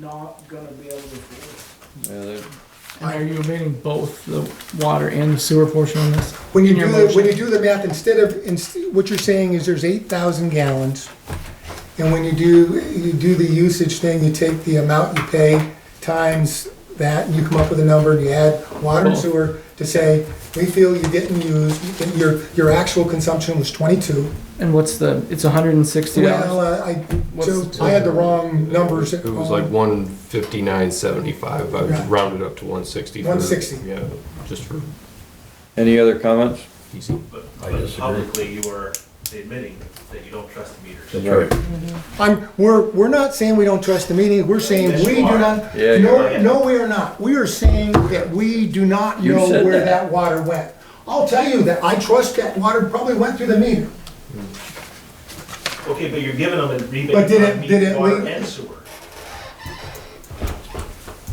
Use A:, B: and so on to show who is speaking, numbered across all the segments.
A: not gonna be able to afford
B: Yeah, they're-
C: And are you omitting both the water and the sewer portion on this?
D: When you
C: In your
D: do, the-
C: motion.
D: when you do the math, instead of, inst- what you're saying is there's eight thousand gallons. And when you do, you do the usage thing, you take the amount you pay times that, and you come up with a number, and you add water and
C: Cool.
D: sewer to say, we feel you didn't use, that your, your actual consumption was twenty-two.
C: And what's the, it's hundred and sixty
D: Well,
C: dollars?
D: uh, I,
C: What's
D: Joe,
C: the
D: I had the wrong numbers.
E: It was like one fifty-nine seventy-five, I
D: Right.
E: rounded up to one sixty.
D: 160.
E: Yeah, just for
B: Any other comments?
E: easy.
F: But,
G: I
F: but
G: disagree.
F: publicly, you are admitting that you don't trust the meters.
B: Right.
D: I'm, we're, we're not saying we don't trust the meeting, we're saying
F: Yes, you
D: we do
F: are.
D: not,
B: Yeah, you
D: no,
F: are.
D: no, we are not. We are saying that we do not
B: You
D: know
B: said
D: where
B: that.
D: that water went. I'll tell you that I trust that water probably went through the meter.
F: Okay, but you're giving them a rebate
D: But did it-
F: on
D: did
F: meat,
D: it
F: water,
D: leak?
F: and sewer.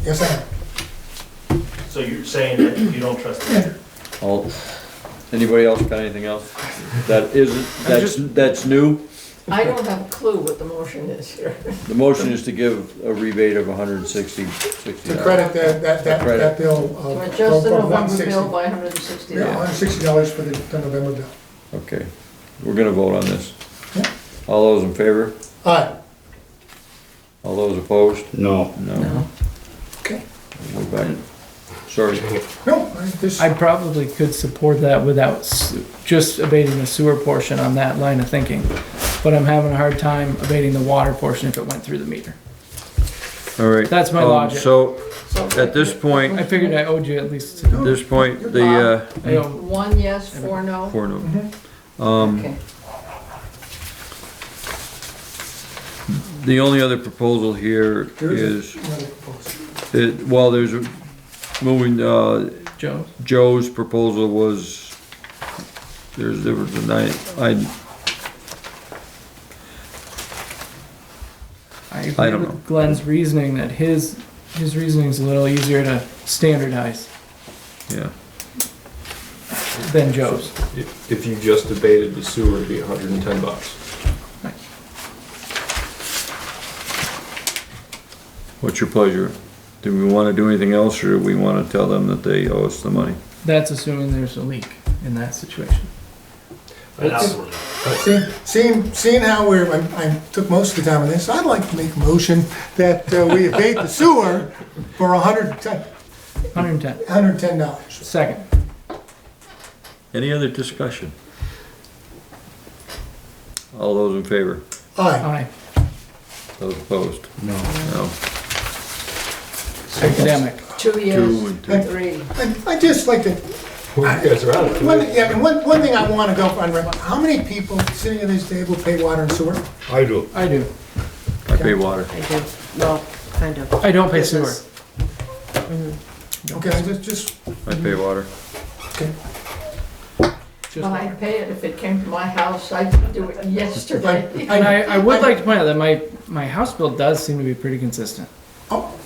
D: Yes, I am.
F: So you're saying that you don't trust the meter.
B: All, anybody else got anything else? That isn't, that's, that's new?
H: I don't have a clue what the motion is here.
B: The motion is to give a rebate of hundred and sixty, sixty
D: To
B: dollars.
D: credit that, that, that,
B: Credit.
D: that bill of,
H: But
D: of
H: just the
D: of
H: November bill
D: 160.
H: by hundred and sixty
D: Yeah,
H: dollars.
D: $160 for the the November bill.
B: Okay, we're gonna vote on this.
D: Yeah.
B: All those in favor?
D: All right,
B: All those opposed?
G: No,
B: No.
D: okay.
B: We're back. Sorry,
D: No, I- this,
C: I probably could support that without s- just abating the sewer portion on that line of thinking. But I'm having a hard time abating the water portion if it went through the meter.
B: all right.
C: That's my
B: Um,
C: logic.
B: So, at this point,
C: I figured I owed you at least,
B: at this point, the, uh,
C: I owe
H: One yes, four no?
B: four no.
H: Okay.
B: The only other proposal here
D: there is
B: is,
D: another proposal.
B: it- well, there's a- moving, uh,
C: Jones.
B: Joe's proposal was, there's, there was a night, I,
C: I agree
B: don't
C: with
B: know.
C: Glenn's reasoning that his, his reasoning's a little easier to standardize
B: yeah.
C: than Joe's.
E: If if you just debated the sewer, it'd be hundred and ten bucks.
B: What's your pleasure? Do we wanna do anything else, or do we wanna tell them that they owe us the money?
C: That's assuming there's a leak in that situation.
F: And that's what-
D: See- Seeing, seeing how we're, I- I took most of the time on this, I'd like to make a motion that uh, we abate the sewer for 110
C: Hundred and ten,
D: $110.
C: second.
B: Any other discussion? All those in favor?
D: Aye.
C: Aye,
B: Those opposed?
G: no.
B: No.
C: academic.
H: Two
B: Two and two.
H: yes, three.
D: I'd I'd just like to,
E: You guys are out of it.
D: one, yeah, I mean, one, one thing I want to go on record, how many people sitting at this table pay water and sewer?
G: I do.
C: I do.
B: I pay water.
H: I did, well, kind of.
C: I don't pay sewer.
D: Okay, I just, just,
B: I pay water.
D: okay.
C: Just
H: Well, I'd
C: water.
H: pay it if it came to my house. I'd do it yesterday.
C: And I, I would like to point out that my, my house bill does seem to be pretty consistent,
D: Oh,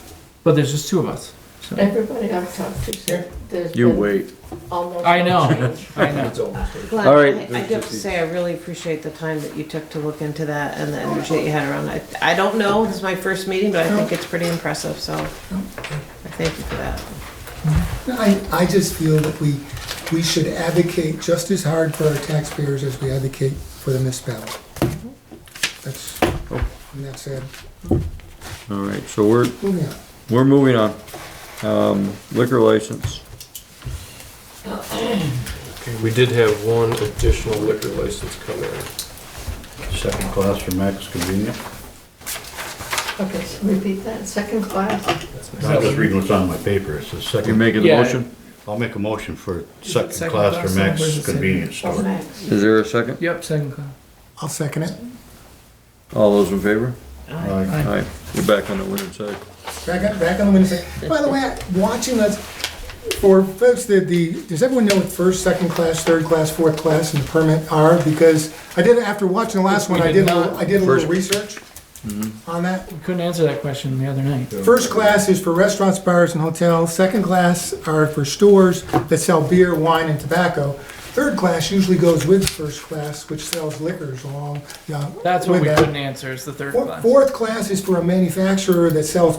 C: but there's just two of us. So,
H: Everybody I've talked to said there's
B: You
H: been
B: wait.
H: almost
C: I
H: no
C: know.
H: change.
C: I know.
E: It's almost over.
I: Glenn,
B: All right.
I: I I do have to say, I really appreciate the time that you took to look into that and the energy that you had around it. I don't know, this is my first meeting, but I think it's pretty impressive, so I thank you for that.
D: I, I just feel that we, we should advocate just as hard for our taxpayers as we advocate for the municipality. That's, and that's it.
B: All right, so we're,
D: Moving on.
B: we're moving on. Um, liquor license.
E: Okay, We did have one additional liquor license come in.
G: Second class for Max Convenience.
H: Okay, so repeat that, second class?
G: I was reading what's on my paper, it says
B: You're
G: second,
B: making the
C: Yeah.
B: motion?
G: I'll make a motion for
C: it
G: second
C: second
G: class
C: class
G: for
C: or is it
G: Max
C: second?
G: Convenience
H: Oh,
G: Store.
H: Max.
B: Is there a second?
C: Yep, second class.
D: I'll second it.
B: All those in favor?
G: Aye.
B: All right, we're back on the winning side.
D: Back on, back on the Wednesday. By the way, I- watching us, for folks that the, does everyone know what first, second class, third class, fourth class, and the permit are? Because I did, after watching the last
C: We
D: one, I
C: did
D: did, a little-
C: not. Mm-hmm.
D: I did a little
B: First-
D: research on that.
C: We couldn't answer that question the other night.
D: First class is for restaurants, bars, and hotels. Second class are for stores that sell beer, wine, and tobacco. Third class usually goes with first class, which sells liquors along, yeah.
C: That's what
D: with
C: we
D: that.
C: couldn't answer, is the third
D: Four-
C: class.
D: Fourth class is for a manufacturer that sells